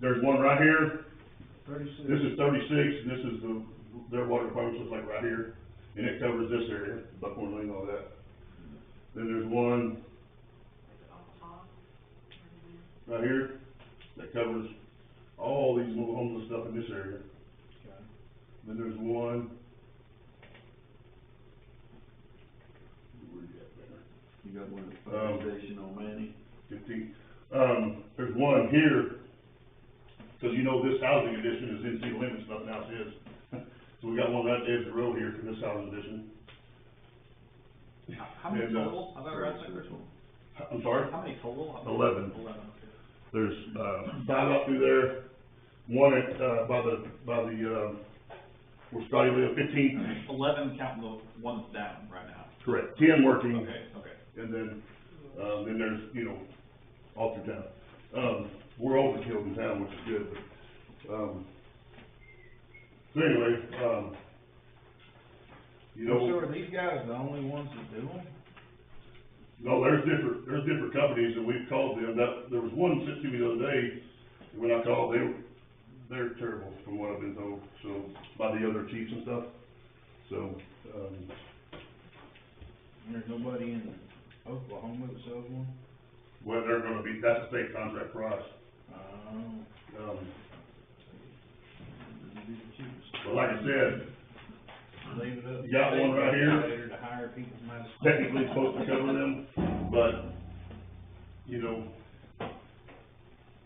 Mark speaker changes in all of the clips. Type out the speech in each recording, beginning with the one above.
Speaker 1: there's one right here,
Speaker 2: Thirty-six.
Speaker 1: this is thirty-six, and this is the, their water department, just like right here, and it covers this area, Buckhorn Lane, all that. Then there's one right here that covers all these little homeless stuff in this area.
Speaker 2: Okay.
Speaker 1: uh, Then there's one. Where you at, Mayor?
Speaker 3: You got one at the fire
Speaker 1: Um,
Speaker 3: station on Manny?
Speaker 1: fifteen. Um, there's one here, because you know this housing addition is in city limits, nothing else is. So we got one right there at the road here for this housing addition.
Speaker 2: How- How many
Speaker 1: And, uh,
Speaker 2: total, have I read that first one?
Speaker 1: I'm sorry,
Speaker 2: How many total?
Speaker 1: Eleven.
Speaker 2: Eleven, okay.
Speaker 1: there's, uh, five up through there, one at, uh, by the, by the, um, where Scotty lived, fifteen,
Speaker 2: Eleven counting the one that's down right now.
Speaker 1: correct, ten working,
Speaker 2: Okay, okay.
Speaker 1: and then, um, then there's, you know, all through town. Um, we're overkill in town, which is good, but, um, so anyway, um, you know.
Speaker 2: So are these guys the only ones that do them?
Speaker 1: No, there's different, there's different companies and we've called them, that, there was one sent to me the other day, and when I called, they, were- they're terrible from what I've been told, so, by the other chiefs and stuff, so, um,
Speaker 2: And There's nobody in Oklahoma that sells one?
Speaker 1: well, they're gonna be, that's a state contract for us,
Speaker 2: Oh.
Speaker 1: um,
Speaker 2: That'd be the cheapest.
Speaker 1: but like I said,
Speaker 2: Leave it up.
Speaker 1: You got one right here?
Speaker 2: Later to hire people from out of state.
Speaker 1: technically it's supposed to cover them, but, you know,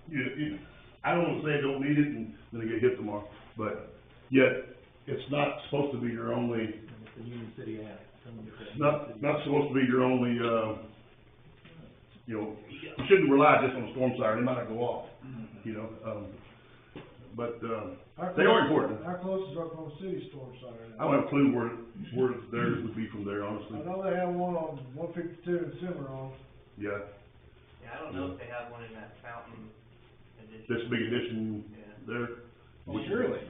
Speaker 1: you, you, I don't wanna say I don't need it and then I get hit tomorrow, but yet, it's not supposed to be your only
Speaker 4: It's the Union City Act. Come and get that.
Speaker 1: It's not, not supposed to be your only, uh, you know, you shouldn't rely just on a storm siren, it might not go off, you know, um, but, um,
Speaker 5: How
Speaker 1: they are
Speaker 5: close-
Speaker 1: important.
Speaker 5: How close is Oklahoma City storm siren?
Speaker 1: I don't have a clue where, where theirs would be from there, honestly,
Speaker 5: I know they have one on one fifty-two in Cimarron.
Speaker 1: yeah,
Speaker 6: Yeah, I don't know if they have one in that fountain
Speaker 1: this
Speaker 6: edition.
Speaker 1: big addition
Speaker 6: Yeah,
Speaker 1: there.
Speaker 2: Well, surely,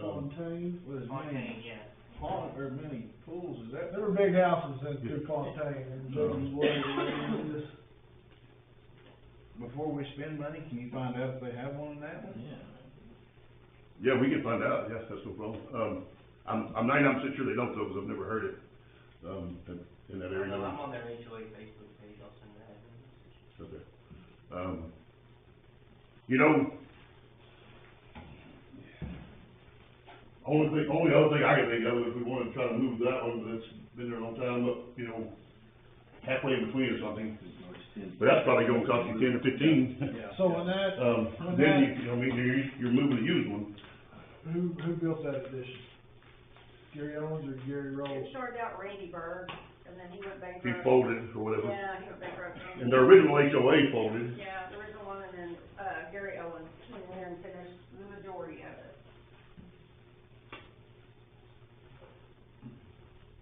Speaker 1: Um,
Speaker 5: Fontaine.
Speaker 2: with as
Speaker 6: Fontaine,
Speaker 2: many,
Speaker 6: yeah.
Speaker 2: pond, or many pools as that.
Speaker 5: There were big houses in through Fontaine and
Speaker 1: No.
Speaker 5: Jordan's Way. and this-
Speaker 2: Before we spend money, can you find out if they have one in that one?
Speaker 1: yeah, we can find out, yes, that's no problem, um, I'm, I'm ninety-nine percent sure they don't though, because I've never heard it, um, in- in that area.
Speaker 6: I'm on their HOA Facebook page, I'll send that.
Speaker 1: Okay. Um, you know, only thing, only other thing I can think of, if we wanted to try to move that one, that's been there a long time, up, you know, halfway in between or something, but that's probably gonna cost you ten or fifteen.
Speaker 2: Yeah.
Speaker 5: So when that,
Speaker 1: Um, then you, you know, I mean, you're, you're moving a used one,
Speaker 5: who, who built that addition? Gary Owens or Gary
Speaker 7: It
Speaker 5: Rolls?
Speaker 7: started out Randy Berg, and then he went
Speaker 1: he
Speaker 7: bankrupt.
Speaker 1: folded or whatever.
Speaker 7: Yeah, he went bankrupt.
Speaker 1: And their original HOA folded,
Speaker 7: Yeah, the original one, and then, uh, Gary Owens came in and finished the majority of it.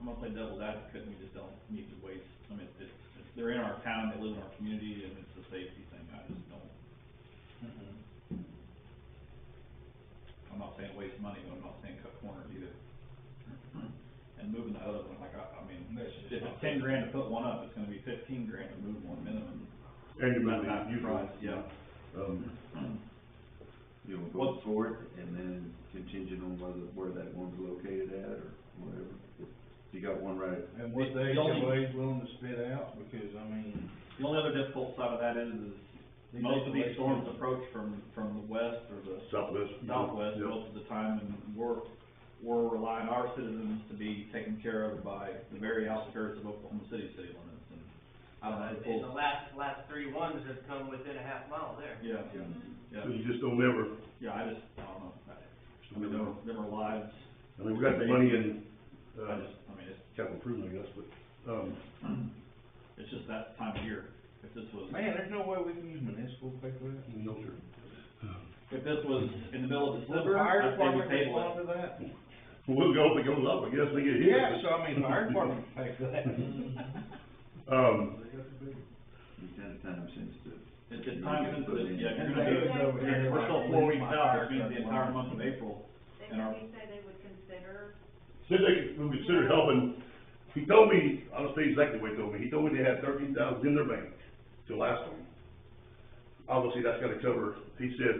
Speaker 2: I'm gonna play devil's advocate, and we just don't need to waste, I mean, if, if they're in our town, they live in our community, and it's a safety thing, I just don't.
Speaker 4: Mm-hmm.
Speaker 2: I'm not saying waste money, but I'm not saying cut corners either. And moving the other one, like, I, I mean, if it's ten grand to put one up, it's gonna be fifteen grand to move one minimum.
Speaker 1: and you're
Speaker 2: That's
Speaker 1: moving
Speaker 2: not
Speaker 1: a used one.
Speaker 2: price, yeah.
Speaker 1: Um,
Speaker 3: You'll vote for it, and then contingent on whether, where that one's located at, or whatever. You got one right at
Speaker 2: And what they, always willing to
Speaker 4: Spit out, because I mean.
Speaker 2: The only other difficult side of that is, is most of these storms approach from, from the west or the
Speaker 1: southwest.
Speaker 2: southwest
Speaker 1: Yeah.
Speaker 2: most of the time, and we're, we're relying our citizens to be taken care of by the very outskirts of Oklahoma City city limits, and I don't know,
Speaker 6: Uh, And the last, last three ones have come within a half mile there.
Speaker 2: yeah, yeah,
Speaker 1: So you just don't ever,
Speaker 2: yeah, I just, I don't know, I, I
Speaker 1: you
Speaker 2: mean,
Speaker 1: don't ever
Speaker 2: there, there are lives,
Speaker 1: I mean, we got the money in,
Speaker 2: I
Speaker 1: uh,
Speaker 2: just, I mean, it's,
Speaker 1: capital improvement, I guess, but, um,
Speaker 2: it's just that time of year, if this was.
Speaker 4: Man, there's no way we can use municipal pay for that.
Speaker 1: no, sir.
Speaker 2: If this was in the middle of
Speaker 4: Will
Speaker 2: December,
Speaker 4: fire
Speaker 2: I'd say we
Speaker 4: department
Speaker 2: table it.
Speaker 4: respond to that?
Speaker 1: We'll go if it goes up, I guess, they get hit.
Speaker 4: Yeah, so I mean, fire department pay for that.
Speaker 5: Mm-hmm.
Speaker 1: Um,
Speaker 5: They got the big-
Speaker 3: least at a time sensitive.
Speaker 2: It's, it's time sensitive, yeah,
Speaker 3: And
Speaker 2: you're gonna
Speaker 7: they-
Speaker 2: do,
Speaker 7: they-
Speaker 2: we're still four weeks out, which means the entire month of April,
Speaker 7: They,
Speaker 2: And our-
Speaker 7: he said they would consider,
Speaker 1: said they could consider helping, he told me, I'll say exactly what he told me, he told me they had thirteen thousand in their bank till last time. Obviously, that's gotta cover, he said,